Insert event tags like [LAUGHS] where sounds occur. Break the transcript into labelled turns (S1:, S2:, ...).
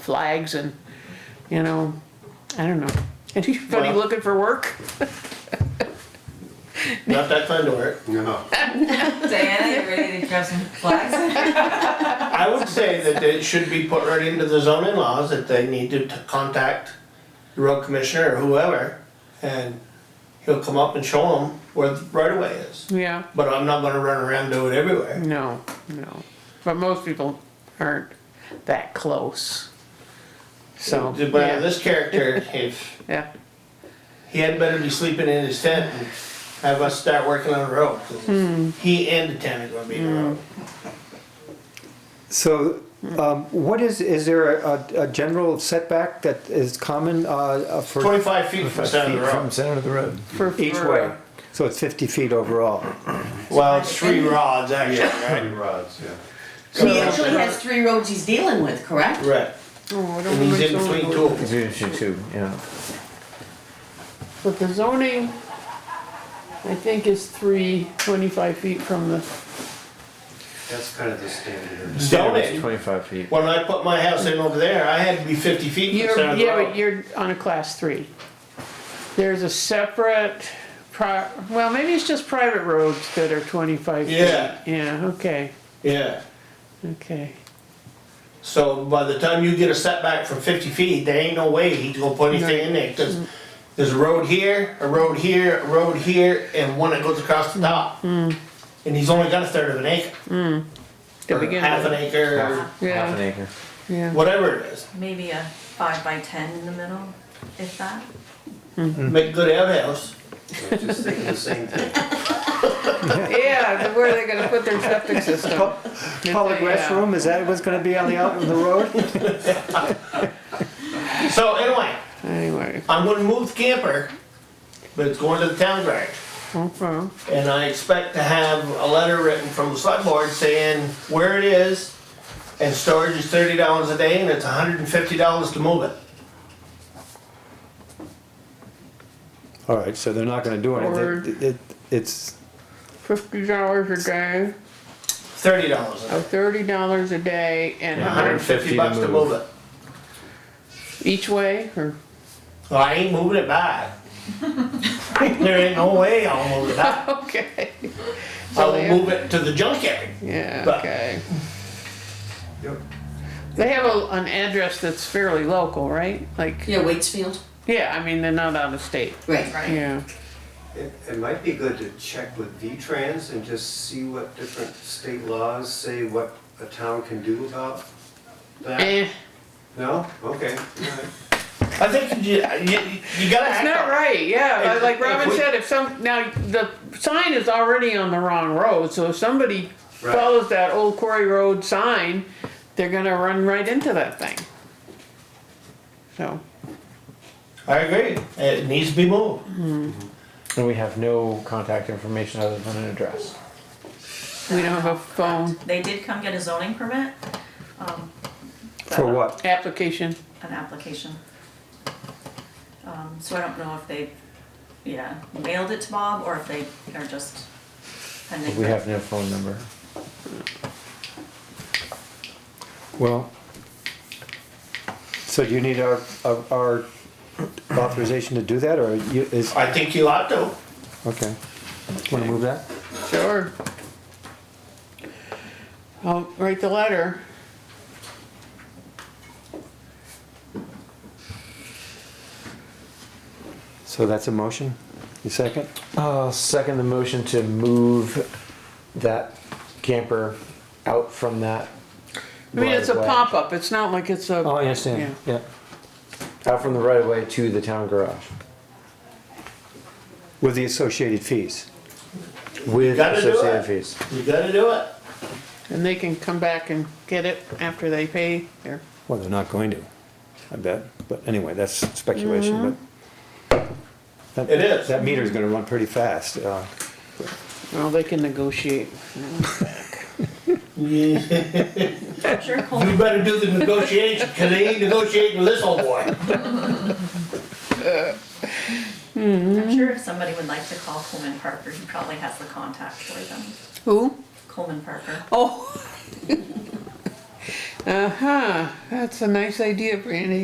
S1: flags and, you know, I don't know. Anybody
S2: Well-
S1: looking for work?
S2: Not that kind of work.
S3: No.
S4: Diana, you ready to grab some flags?
S2: I would say that it should be put right into the zoning laws that they need to t- contact the road commissioner or whoever, and he'll come up and show them where the right of way is.
S1: Yeah,
S2: But I'm not gonna run around and do it everywhere.
S1: no, no. But most people aren't that close. So,
S2: But
S1: yeah,
S2: this character, if
S1: yeah,
S2: he had better be sleeping in his tent and have us start working on the road. 'cause He and the tent are gonna be in the road.
S5: So, um, what is, is there a, a general setback that is common, uh, uh, for?
S2: Twenty-five feet from the center of the
S5: From
S2: road.
S5: center of the road.
S1: For-
S5: Each
S1: for-
S5: way, so it's fifty feet overall.
S2: Well, it's three rods actually, right?
S3: Three rods, yeah.
S6: So he actually has three roads he's dealing with, correct?
S2: Right,
S1: Oh, I don't
S2: and he's in
S1: remember
S2: between
S1: zoning.
S2: two of them.
S5: It's usually two, yeah.
S1: But the zoning, I think is three, twenty-five feet from the,
S3: That's kind of the standard.
S2: Zoning.
S5: Twenty-five feet.
S2: When I put my house in over there, I had to be fifty feet from the
S1: you're,
S2: center of the
S1: yeah, but
S2: road.
S1: you're on a class three. There's a separate pri, well, maybe it's just private roads that are twenty-five feet.
S2: Yeah.
S1: Yeah, okay,
S2: Yeah,
S1: okay.
S2: so by the time you get a setback from fifty feet, there ain't no way he's gonna put anything in there, cause there's a road here, a road here, a road here, and one that goes across the top. And he's only got a third of an acre,
S1: To
S2: or
S1: begin
S2: half an
S1: with.
S2: acre, or
S5: Half
S1: Yeah.
S5: half an acre.
S1: Yeah.
S2: whatever it is,
S4: Maybe a five by ten in the middle, if that.
S2: make good outhouse.
S3: I was Just thinking the same thing.
S1: Yeah, the- where are they gonna put their septic system?
S5: Public
S1: Yeah.
S2: uh,
S5: restroom, is that what's gonna be on the, out on the
S1: [LAUGHS]
S5: road?
S2: So anyway,
S1: Anyway,
S2: I'm gonna move the camper, but it's going to the town garage.
S1: okay,
S2: And I expect to have a letter written from the select board saying where it is, and storage is thirty dollars a day, and it's hundred and fifty dollars to move it.
S5: All right, so they're not gonna do
S1: Or-
S5: anything, It- it, it's,
S1: fifty dollars a day,
S2: Thirty dollars a
S1: or
S2: day,
S1: thirty dollars a day and a
S2: hundred
S1: hundred
S2: and fifty
S5: 150
S2: bucks to
S5: to
S2: move
S5: move.
S2: it.
S1: each way, or?
S2: Well, I ain't moving it back. There ain't no way I'll move it
S1: [LAUGHS]
S2: back.
S1: [LAUGHS] Okay,
S2: I will move it to the junkyard.
S1: yeah,
S2: But-
S1: okay.
S3: Yep.
S1: They have a, an address that's fairly local, right? Like,
S6: Yeah, Waitsfield.
S1: yeah, I mean, they're not out of state,
S6: Right.
S1: yeah.
S3: It, it might be good to check with V-Trans and just see what different state laws say what a town can do about that.
S1: Eh,
S3: No? Okay, all right.
S2: I think you, you, you gotta
S1: that's
S2: act
S1: not
S2: on it.
S1: right, yeah,
S2: If-
S1: but like
S2: if
S1: Robin
S2: we-
S1: said, if some, now, the sign is already on the wrong road, so if somebody
S3: Right.
S1: follows that old quarry road sign, they're gonna run right into that thing. So,
S2: I agree, it needs to be moved.
S7: And we have no contact information other than an address.
S1: we don't have a phone
S4: They did come get a zoning permit. um, but,
S5: for
S4: um,
S5: what?
S1: application,
S4: An application. Um, so I don't know if they, yeah, mailed it to Bob or if they are just pending.
S7: We have no phone number.
S5: Well, so do you need our, our- our authorization to do that, or you, is,
S2: I think you ought to.
S5: okay. Wanna move that?
S1: sure. I'll write the letter.
S5: So that's a motion? You second?
S7: I'll Uh, second the motion to move that camper out from that.
S1: I mean, it's a
S7: right-of-way.
S1: pop-up, it's not like it's
S5: Oh,
S1: a,
S5: I understand, yeah.
S7: Out from the right of way to the town garage
S5: With the associated fees.
S7: with
S2: Gotta do
S7: associated
S2: it.
S7: fees.
S2: You gotta do it.
S1: and they can come back and get it after they pay their,
S5: Well, they're not going to, I bet, but anyway, that's speculation, but. that-
S2: It is.
S5: That meter's gonna run pretty fast, uh,
S1: well, they can negotiate.
S4: Sure, Cole.
S2: You better do the negotiation, cause they ain't negotiating with this old boy.
S4: I'm sure if somebody would like to call Coleman Parker, he probably has the contact for them.
S1: Who? [LAUGHS]
S4: Coleman Parker.
S1: Oh. Uh-huh, that's a nice idea, Brandy.